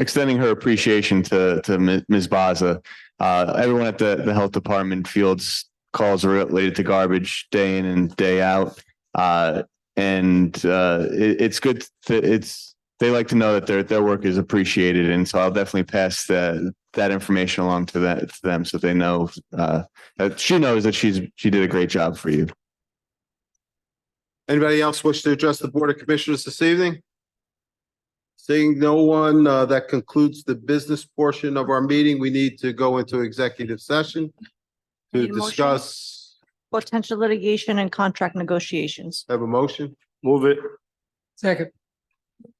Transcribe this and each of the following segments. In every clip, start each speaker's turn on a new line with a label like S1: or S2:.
S1: extending her appreciation to, to Mi- Ms. Baza. Uh, everyone at the, the health department fields calls related to garbage day in and day out. Uh, and, uh, it, it's good to, it's, they like to know that their, their work is appreciated. And so I'll definitely pass that, that information along to that, to them so they know, uh, that she knows that she's, she did a great job for you.
S2: Anybody else wish to address the Board of Commissioners this evening? Seeing no one, uh, that concludes the business portion of our meeting. We need to go into executive session to
S3: Need a motion?
S2: discuss,
S3: potential litigation and contract negotiations.
S2: have a motion?
S4: Move it.
S5: Second.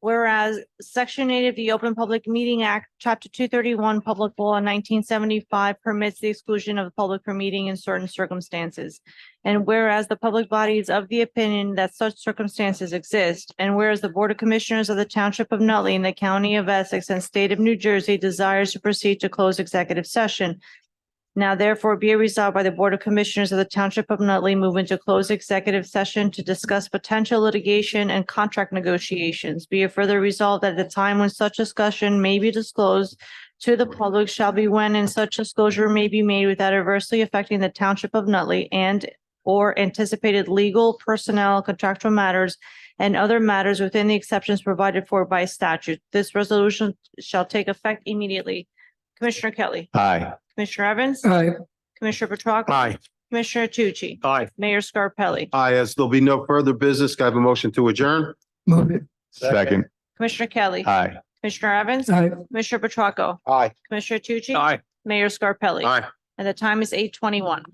S3: Whereas Section 8 of the Open Public Meeting Act, Chapter 231, Public Law 1975 permits the exclusion of the public from meeting in certain circumstances. And whereas the public body is of the opinion that such circumstances exist, and whereas the Board of Commissioners of the Township of Nutley in the County of Essex and State of New Jersey desires to proceed to close executive session. Now therefore be it resolved by the Board of Commissioners of the Township of Nutley move into closed executive session to discuss potential litigation and contract negotiations. Be it further resolved that the time when such discussion may be disclosed to the public shall be when and such disclosure may be made without adversely affecting the Township of Nutley and or anticipated legal, personnel, contractual matters and other matters within the exceptions provided for by statute. This resolution shall take effect immediately. Commissioner Kelly,
S1: Hi.
S3: Commissioner Evans?
S5: Aye.
S3: Commissioner Petracca.
S4: Aye.
S3: Commissioner Tucci.
S4: Aye.
S3: Mayor Scarpelli.
S2: Aye, as there'll be no further business, can I have a motion to adjourn?
S5: Move it.
S1: Second.
S3: Commissioner Kelly.
S1: Hi.
S3: Commissioner Evans.
S5: Aye.
S3: Commissioner Petracca.
S2: Aye.
S3: Commissioner Tucci.
S4: Aye.
S3: Mayor Scarpelli.
S2: Aye.
S3: And the time is eight twenty-one.